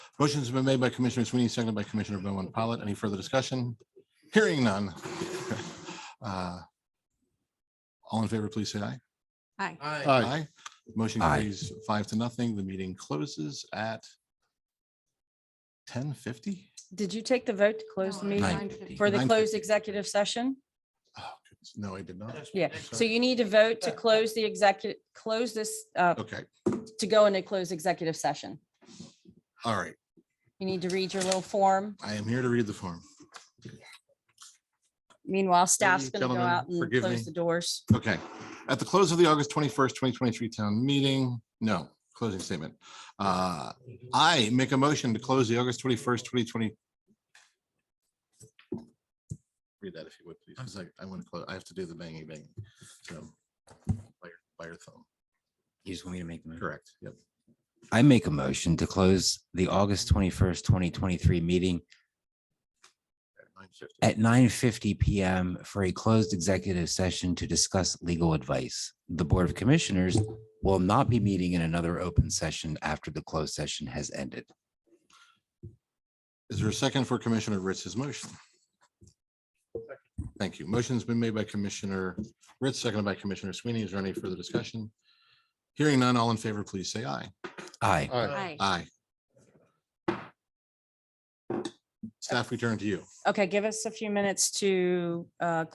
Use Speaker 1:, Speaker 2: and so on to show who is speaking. Speaker 1: Motion's been made by Commissioner Sweeney, seconded by Commissioner Bowman Pollitt. Any further discussion? Hearing none. Uh, All in favor, please say aye.
Speaker 2: Aye.
Speaker 3: Aye.
Speaker 1: Motion
Speaker 4: Aye.
Speaker 1: carries five to nothing. The meeting closes at ten fifty?
Speaker 5: Did you take the vote to close the meeting
Speaker 4: Nine.
Speaker 5: for the
Speaker 1: 9:50.
Speaker 5: closed executive session?
Speaker 1: No, I did not.
Speaker 5: Yeah, so you need to vote to close the executive, close this, uh,
Speaker 1: Okay,
Speaker 5: to go into closed executive session.
Speaker 1: all right.
Speaker 5: You need to read your little form.
Speaker 1: I am here to read the form.
Speaker 5: Meanwhile, staff's going to go
Speaker 1: gentlemen,
Speaker 5: out and
Speaker 1: forgive
Speaker 5: close
Speaker 1: me.
Speaker 5: the doors.
Speaker 1: Okay. At the close of the August twenty-first, twenty twenty-three town meeting, no, closing statement. Uh, I make a motion to close the August twenty-first, twenty twenty. Read that if you would, please, because I, I want to close, I have to do the banging bang. So by your, by your thumb,
Speaker 4: You just want me to make the motion?
Speaker 1: correct, yep.
Speaker 4: I make a motion to close the August twenty-first, twenty twenty-three meeting
Speaker 1: Nine fifty.
Speaker 4: at nine fifty PM for a closed executive session to discuss legal advice. The Board of Commissioners will not be meeting in another open session after the closed session has ended.
Speaker 1: Is there a second for Commissioner Ritz's motion? Thank you. Motion's been made by Commissioner Ritz, seconded by Commissioner Sweeney. Is there any further discussion? Hearing none, all in favor, please say aye.
Speaker 4: Aye.
Speaker 2: Aye.
Speaker 1: Aye. Staff, we turn to you.
Speaker 5: Okay, give us a few minutes to, uh,